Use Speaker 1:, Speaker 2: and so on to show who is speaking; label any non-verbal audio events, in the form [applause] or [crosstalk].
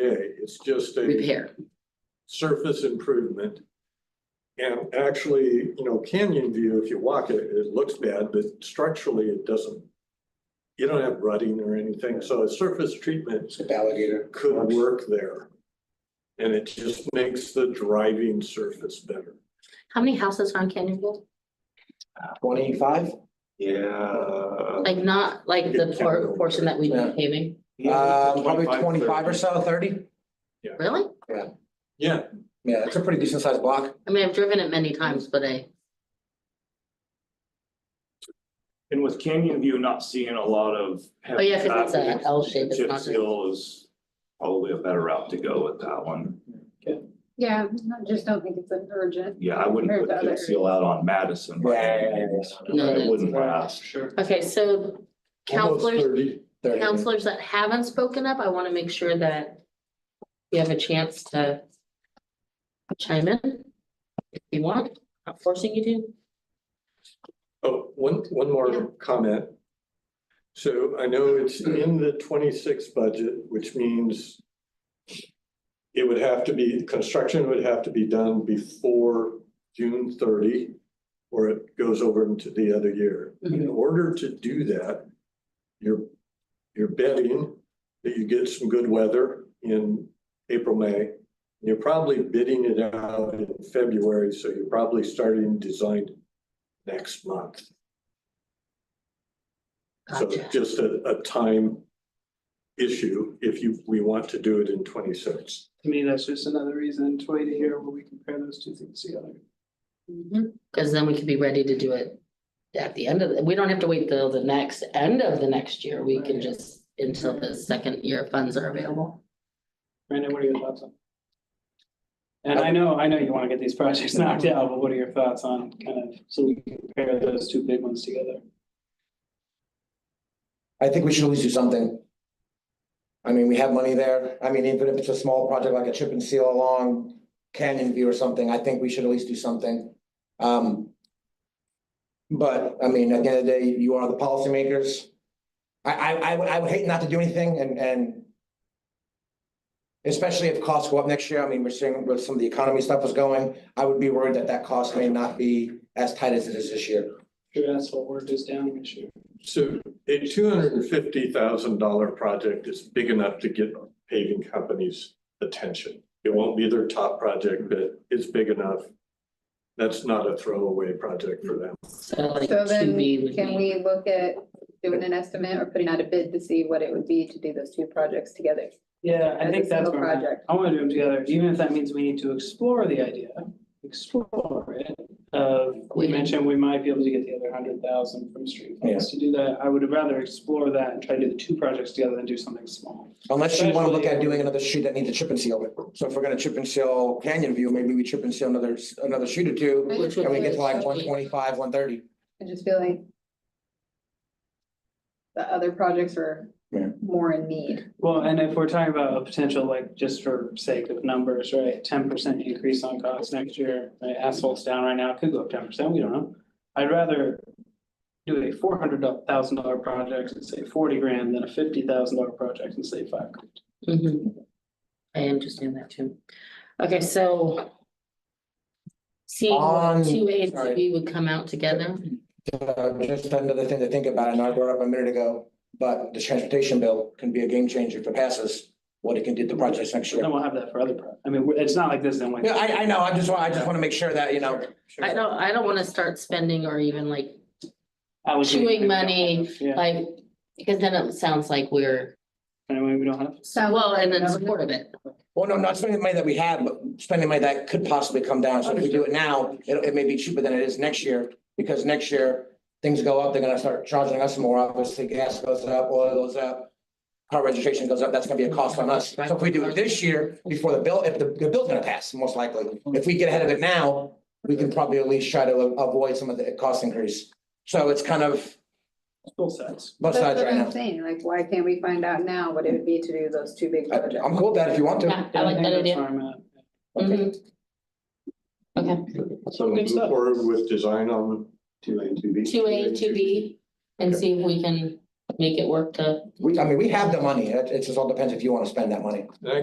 Speaker 1: It's just a
Speaker 2: repair.
Speaker 1: surface improvement. And actually, you know, Canyon View, if you walk it, it looks bad, but structurally it doesn't. You don't have rutting or anything, so a surface treatment
Speaker 3: It's alligator.
Speaker 1: could
Speaker 3: Works.
Speaker 1: work there. And it just makes the driving surface better.
Speaker 2: How many houses are on Canyonville?
Speaker 3: Twenty-five? Uh,
Speaker 4: Yeah.
Speaker 2: Like not like the por- portion that we've
Speaker 3: Yeah.
Speaker 2: been paving,
Speaker 3: Um, probably twenty-five or so, thirty?
Speaker 2: really?
Speaker 1: Yeah,
Speaker 3: Yeah, it's a pretty decent sized block.
Speaker 2: I mean, I've driven it many times, but I,
Speaker 4: And with Canyon View not seeing a lot of.
Speaker 2: oh yeah, cause it's a L shape, it's not
Speaker 4: Chip
Speaker 2: just.
Speaker 4: seal is probably a better route to go with that one.
Speaker 5: Yeah, I just don't think it's an urgent.
Speaker 4: Yeah, I wouldn't
Speaker 5: Compared
Speaker 4: put
Speaker 5: to
Speaker 4: chip
Speaker 5: other-
Speaker 4: seal out on Madison. by any means.
Speaker 2: No,
Speaker 4: It
Speaker 2: that's
Speaker 4: wouldn't last.
Speaker 3: Sure.
Speaker 2: Okay, so
Speaker 1: almost
Speaker 2: counselors,
Speaker 1: thirty.
Speaker 2: counselors that haven't spoken up, I wanna make sure that you have a chance to chime in if you want, not forcing you to.
Speaker 1: Oh, one, one
Speaker 2: Yeah.
Speaker 1: more comment. So I know it's in the twenty-six budget, which means it would have to be, construction would have to be done before June thirty, or it goes over into the other year. In order to do that, you're, you're betting that you get some good weather in April, May. You're probably bidding it out in February, so you're probably starting design next month. So
Speaker 2: Gotcha.
Speaker 1: just a, a time issue if you, we want to do it in twenty-six.
Speaker 6: To me, that's just another reason to wait to hear where we compare those two things together.
Speaker 2: Cause then we could be ready to do it at the end of, the- we don't have to wait till the next end of the next year, we can just until the second year funds are available.
Speaker 6: Brandon, what are your thoughts on? And I know, I know you want to get these projects [laughs] knocked out, but what are your thoughts on kind of, so we can compare those two big ones together?
Speaker 3: I think we should at least do something. I mean, we have money there. I mean, even if it's a small project like a chip and seal along Canyon View or something, I think we should at least do something. Um. But, I mean, at the end of the day, you are the policymakers. I, I, I would, I would hate not to do anything and, and especially if costs go up next year. I mean, we're seeing where some of the economy stuff is going. I would be worried that that cost may not be as tight as it is this year.
Speaker 6: Sure, that's what we're just down this year.
Speaker 1: So a two hundred and fifty thousand dollar project is big enough to get paving companies' attention. It won't be their top project, but it's big enough. That's not a throwaway project for them.
Speaker 2: So like
Speaker 5: So
Speaker 2: two
Speaker 5: then,
Speaker 2: B would
Speaker 5: can
Speaker 2: be,
Speaker 5: we look at doing an estimate or putting out a bid to see what it would be to do those two projects together?
Speaker 6: Yeah, I
Speaker 5: As a
Speaker 6: think that's
Speaker 5: single
Speaker 6: where I'm at.
Speaker 5: project.
Speaker 6: I want to do them together, even if that means we need to explore the idea, explore it. Uh, we
Speaker 2: Wait.
Speaker 6: mentioned we might be able to get the other hundred thousand from street funds to do that. I would rather explore that and try to do the two projects together than do something small.
Speaker 3: Unless you wanna look at doing another street that needs a chip and seal. So if we're gonna chip and seal Canyon View, maybe we chip and seal another, another street or two.
Speaker 2: Which would
Speaker 3: And we
Speaker 2: be-
Speaker 3: get to like one twenty-five, one thirty.
Speaker 5: I just feel like the other projects are
Speaker 3: Yeah.
Speaker 5: more in need.
Speaker 6: Well, and if we're talking about a potential, like, just for sake of numbers, right, ten percent increase on costs next year, right, asphalt's down right now, it could go up ten percent, we don't know. I'd rather do a four hundred thousand dollar project and save forty grand than a fifty thousand dollar project and save five grand.
Speaker 2: Mhm. I understand that too. Okay, so. Seeing
Speaker 3: On-
Speaker 2: what two A and two
Speaker 3: Um, sorry.
Speaker 2: B would come out together,
Speaker 3: Just another thing to think about. I know I brought up a minute ago, but the transportation bill can be a game changer if it passes. What it can do to the projects next
Speaker 6: But
Speaker 3: year.
Speaker 6: Then we'll have that for other, pro- I mean, we're- it's not like this, then we.
Speaker 3: Yeah, I, I know. I just want, I just wanna make sure that, you know,
Speaker 2: I don't, I don't wanna start spending or even like,
Speaker 6: I would-
Speaker 2: Chewing money,
Speaker 6: Yeah,
Speaker 2: like. Because then it sounds like we're,
Speaker 6: anyway, we don't have,
Speaker 5: So
Speaker 2: well, and in support of it,
Speaker 3: well, no, not spending the money that we have, but spending money that could possibly come down. So if we do it now, it, it may be cheaper than it is next year. Because next year, things go up, they're gonna start charging us more, obviously, gas goes up, oil goes up. Car registration goes up, that's gonna be a cost on us. So if we do it this year, before the bill, if the, the bill's gonna pass, most likely, if we get ahead of it now. We can probably at least try to avoid some of the cost increase. So it's kind of
Speaker 6: full sets.
Speaker 3: both
Speaker 5: That's
Speaker 3: sides
Speaker 5: what
Speaker 3: right
Speaker 5: I'm
Speaker 3: now.
Speaker 5: saying, like, why can't we find out now what it would be to do those two big projects?
Speaker 3: I- I'm cool with that if you want to.
Speaker 2: yeah, I like that
Speaker 6: think that's
Speaker 2: idea.
Speaker 6: where I'm at.
Speaker 3: Okay.
Speaker 2: Mhm. Okay.
Speaker 1: So move
Speaker 6: stuff.
Speaker 1: forward with design on
Speaker 4: Two A, two B.
Speaker 2: two A, two B, and see if we can make it work to
Speaker 3: We, I mean, we have the money. It, it just all depends if you wanna spend that money.
Speaker 1: And I